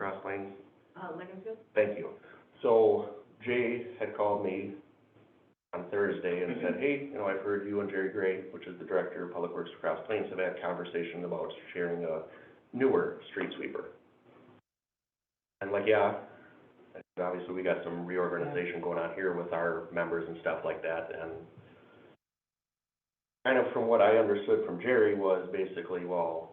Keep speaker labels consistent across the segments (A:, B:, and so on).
A: Uh, Lincolnfield?
B: Thank you. So Jay had called me on Thursday and said, hey, you know, I've heard you and Jerry Gray, which is the director of Public Works for Cross Plains, have had conversation about sharing a newer street sweeper. And like, yeah, and obviously we got some reorganization going on here with our members and stuff like that and kind of from what I understood from Jerry was basically, well,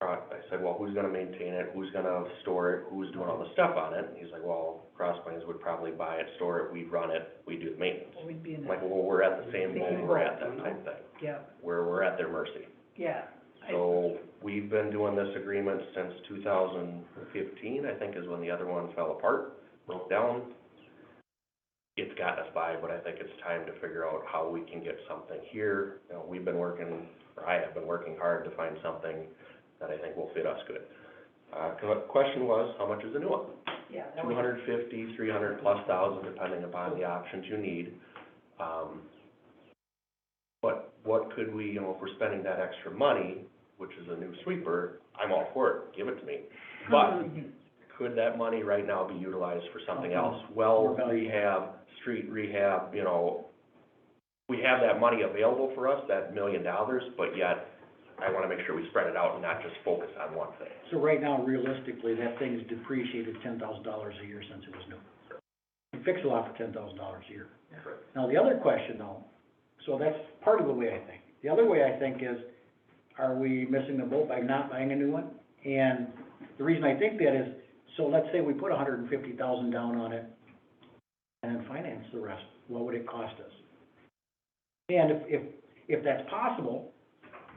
B: uh, I said, well, who's gonna maintain it, who's gonna store it, who's doing all the stuff on it? And he's like, well, Cross Plains would probably buy it, store it, we run it, we do the maintenance.
A: We'd be in
B: I'm
A: that,
B: like, well, we're at the same
A: Same
B: level we're
A: boat,
B: at, that
A: you know?
B: type thing,
A: yeah,
B: where we're at their mercy.
A: yeah. I-
B: So, we've been doing this agreement since two thousand fifteen, I think is when the other one fell apart, broke down. It's gotten us by, but I think it's time to figure out how we can get something here. You know, we've been working, or I have been working hard to find something that I think will fit us good. Uh, the question was, how much is the new one?
A: Yeah. that
B: Two
A: was-
B: hundred fifty, three hundred plus thousand, depending upon the options you need. Um, But what could we, you know, if we're spending that extra money, which is a new sweeper, I'm all for it, give it to me. But could that money right now be utilized for something else? Well
C: Uh-huh. More value.
B: rehab, street rehab, you know, we have that money available for us, that million dollars, but yet I wanna make sure we spread it out and not just focus on one thing.
C: So right now, realistically, that thing's depreciated ten thousand dollars a year since it was new. You fix a lot for ten thousand dollars a year.
B: Correct.
C: Now, the other question though, so that's part of the way I think. The other way I think is, are we missing the boat by not buying a new one? And the reason I think that is, so let's say we put $150,000 down on it and then finance the rest, what would it cost us? And if, if, if that's possible,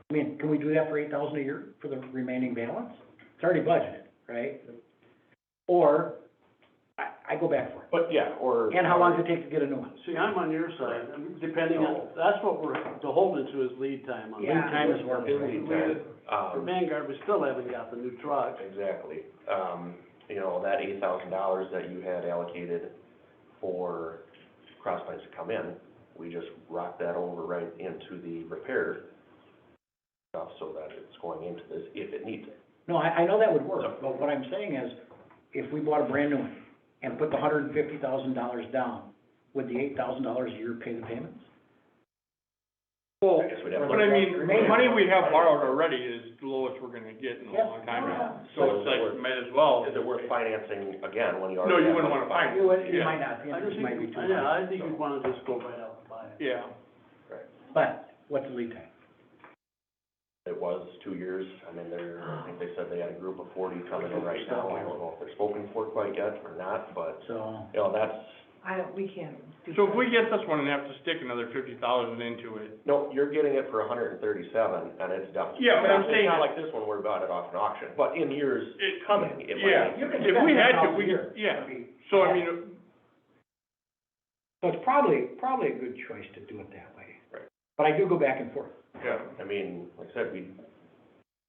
C: I mean, can we do that for eight thousand a year for the remaining balance? It's already budgeted, right? Or, I, I go back for
B: But yeah, or.
C: it. And how long does it take to get a new one?
D: See, I'm on your side, I'm depending on, that's what we're beholden to is lead time on.
C: Lead time is
D: worth
C: worth
D: it.
C: it.
B: Lead time.
D: For
B: Um,
D: Vanguard, we still haven't got the new truck.
B: exactly. Um, you know, that eight thousand dollars that you had allocated for cross Plains to come in, we just rocked that over right into the repair stuff so that it's going into this if it needs it.
C: No, I, I know that would work, but what I'm saying is, if we bought a brand new one and put the hundred and fifty thousand dollars down, would the eight thousand dollars a year pay the payments?
E: Well,
B: I guess we'd have to
E: but I
B: look-
E: mean, the
C: Remaining.
E: money we have borrowed already is the lowest we're gonna get in a
C: Yeah.
E: long time
A: Oh,
E: now.
C: Yeah.
E: So it's like, might as well.
B: Is it worth financing again when you already?
E: No, you
B: have
E: wouldn't wanna
B: it?
E: find it.
C: You would, you
E: Yeah.
C: might not, the
D: I just
C: interest might be
D: think,
C: too
D: yeah,
C: high,
D: I think you'd wanna just go right out and buy it.
E: Yeah,
C: but what's the lead time?
B: It was two years. I mean, they're, I think they said they had a group of forty coming in right now. I don't know if they're spoken for quite yet or not, but,
C: So,
B: you know, that's,
A: I, don't- we can't do.
E: so if
A: that.
E: we get this one and have to stick another fifty thousand into it,
B: No, you're getting it for hundred and thirty-seven, and it's done.
E: Yeah, but I'm saying-
B: It's not like this one, we're about it off an auction, but in years
E: It-
B: coming, it
E: yeah.
B: might.
C: you can
E: If
C: spend
E: we had to,
C: $10,000 a
E: we-
C: year.
E: yeah.
C: I mean,
E: so I mean,
C: So it's probably, probably a good choice to do it that way.
B: Right.
C: But I do go back and forth.
E: yeah.
B: I mean, like I said, we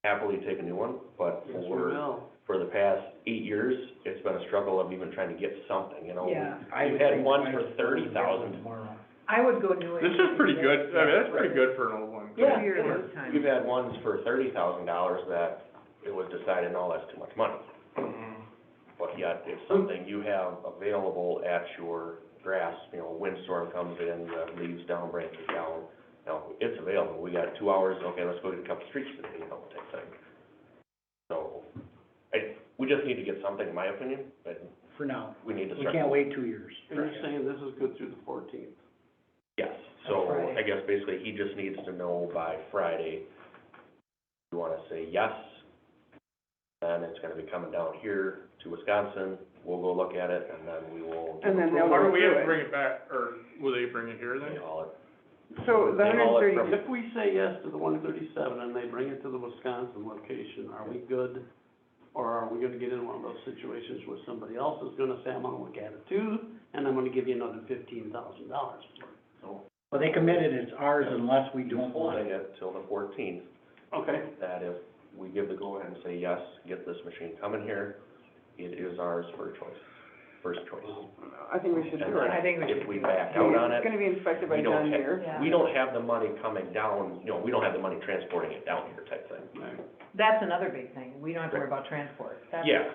B: happily take a new one, but
D: Yes, we
B: for,
D: will.
B: for the past eight years, it's been a struggle of even trying to get something, you know?
A: Yeah,
C: I
B: We've
C: would
B: had
C: think
B: one
C: twice
B: for
C: before we
B: $30,000.
C: get one Tomorrow.
A: I would go new.
E: This is pretty good, I mean, that's pretty good for an old one.
A: Two
C: Yeah,
A: year
C: it
A: lead time.
B: We've had ones for thirty thousand dollars that it was decided, no, that's too much money, Mm-hmm.
E: Mhm.
B: but yet it's something you have available at your grass, you know, windstorm comes in, the leaves down, branches down, now, it's available, we got two hours, okay, let's go get a couple streets today, you know, type thing. So, I, we just need to get something, in my opinion, but
C: For now,
B: we need to
C: we
B: start.
C: can't wait two years.
D: And you're saying this is good through the fourteenth.
B: Yes, so
A: Friday.
B: I guess basically he just needs to know by Friday, you wanna say yes, then it's gonna be coming down here to Wisconsin, we'll go look at it, and then we will.
F: And then they'll
E: Why
F: go
E: don't we have to
F: through it.
E: bring it back, or will they bring it here
B: They
E: then?
B: haul it.
F: So the
B: they haul
F: hundred
B: it from-
F: and thirty,
D: If we say yes to the one thirty-seven and they bring it to the Wisconsin location, are we good? Or are we gonna get in one of those situations where somebody else is gonna say, I'm gonna look at it too, and I'm gonna give you another fifteen thousand dollars for it?
C: Well, they committed it's ours unless we
B: He's
C: don't want it.
B: holding it till the fourteenth,
D: Okay.
B: that if we give the go-ahead and say, yes, get this machine coming here, it is ours for choice, first choice.
F: I think we should
B: And
F: do
B: then
F: it.
A: I think we
B: If
A: should
B: we
A: do it.
B: back out on
F: It's
B: it,
F: gonna be inspected by
B: we don't
F: John
B: have-
F: Deere.
A: Yeah.
B: we don't have the money coming down, you know, we don't have the money transporting it down here type thing.
A: That's another big thing, we don't have to worry about transport. That's-
B: Yeah,